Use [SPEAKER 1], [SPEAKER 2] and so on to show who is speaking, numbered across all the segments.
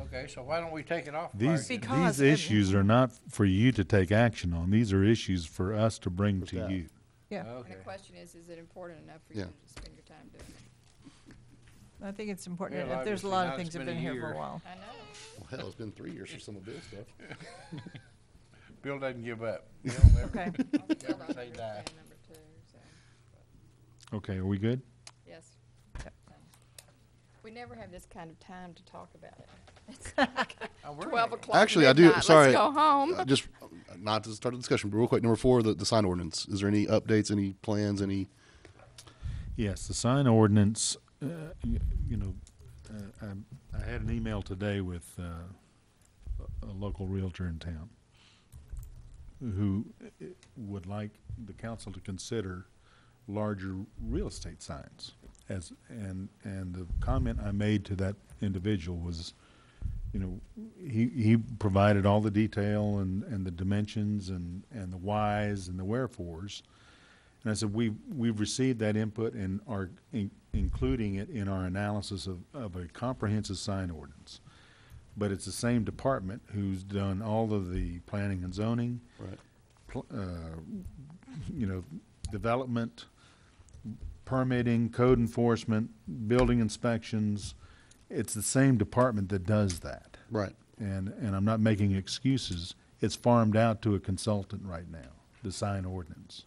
[SPEAKER 1] Okay, so why don't we take it off?
[SPEAKER 2] These,
[SPEAKER 1] Friday?
[SPEAKER 3] Because
[SPEAKER 2] these
[SPEAKER 3] it-
[SPEAKER 2] issues are not for you to take action on. These are issues for us to bring to
[SPEAKER 4] that.
[SPEAKER 2] you.
[SPEAKER 3] Yeah,
[SPEAKER 1] Okay.
[SPEAKER 5] And the question is, is it important enough for you
[SPEAKER 4] Yeah.
[SPEAKER 5] to spend your time doing it?
[SPEAKER 3] I think it's important.
[SPEAKER 1] Well,
[SPEAKER 3] enough. There's a
[SPEAKER 1] obviously
[SPEAKER 3] lot
[SPEAKER 1] not.
[SPEAKER 3] of things
[SPEAKER 1] It's
[SPEAKER 3] that have
[SPEAKER 1] been
[SPEAKER 3] been
[SPEAKER 1] a
[SPEAKER 3] here for
[SPEAKER 1] year.
[SPEAKER 3] a while.
[SPEAKER 5] I know.
[SPEAKER 4] Well, hell, it's been three years for some of Bill's stuff.
[SPEAKER 1] Bill doesn't give up. Bill never-
[SPEAKER 3] Okay,
[SPEAKER 5] I was told I
[SPEAKER 1] Never say
[SPEAKER 5] understand
[SPEAKER 1] die.
[SPEAKER 5] number two, so,
[SPEAKER 2] Okay, are we good?
[SPEAKER 5] yes. So, We never have this kind of time to talk about it. It's like
[SPEAKER 1] Oh, we're
[SPEAKER 5] Twelve
[SPEAKER 1] not-
[SPEAKER 5] o'clock.
[SPEAKER 4] Actually, I do-
[SPEAKER 5] midnight.
[SPEAKER 4] sorry.
[SPEAKER 5] Let's go home.
[SPEAKER 4] Uh, Just uh, not to start the discussion, but real quick, number four, the, the sign ordinance. Is there any updates, any plans, any?
[SPEAKER 2] Yes, the sign ordinance, uh, y- you know, uh, I, I had an email today with, uh, a- a local realtor in town who uh, would like the council to consider larger real estate signs as, and, and the comment I made to that individual was, you know, he, he provided all the detail and, and the dimensions and, and the whys and the wherefores. And I said, we, we've received that input and are in- including it in our analysis of, of a comprehensive sign ordinance. But it's the same department who's done all of the planning and zoning,
[SPEAKER 4] Right.
[SPEAKER 2] pl- uh, you know, development, permitting, code enforcement, building inspections. It's the same department that does that.
[SPEAKER 4] Right.
[SPEAKER 2] And, and I'm not making excuses. It's farmed out to a consultant right now, the sign ordinance,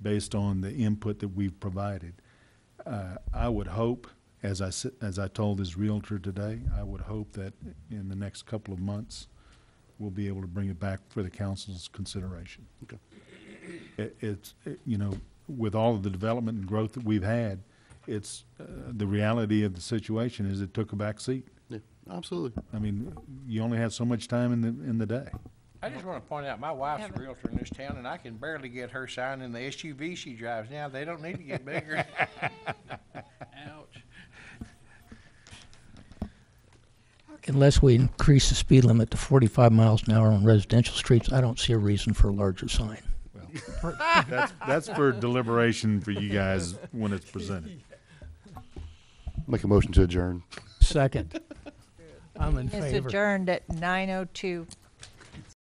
[SPEAKER 2] based on the input that we've provided. Uh, I would hope, as I, s- as I told this Realtor today, I would hope that in the next couple of months, we'll be able to bring it back for the council's consideration.
[SPEAKER 4] Okay.
[SPEAKER 2] It, it's, it- you know, with all of the development and growth that we've had, it's, uh, the reality of the situation is it took a back seat.
[SPEAKER 4] Yeah, absolutely.
[SPEAKER 2] I mean, you only have so much time in the, in the day.
[SPEAKER 1] I just want to point out, my wife's a
[SPEAKER 3] Haven't-
[SPEAKER 1] realtor in this town, and I can barely get her sign in the SUV she drives now. They don't need to get bigger. Ouch.
[SPEAKER 6] Unless we increase the speed limit to 45 miles an hour on residential streets, I don't see a reason for a larger sign.
[SPEAKER 2] That's, that's for deliberation for you guys when it's presented.
[SPEAKER 4] Make a motion to adjourn.
[SPEAKER 6] Second, I'm in
[SPEAKER 3] it's
[SPEAKER 6] favor.
[SPEAKER 3] adjourned at nine oh two.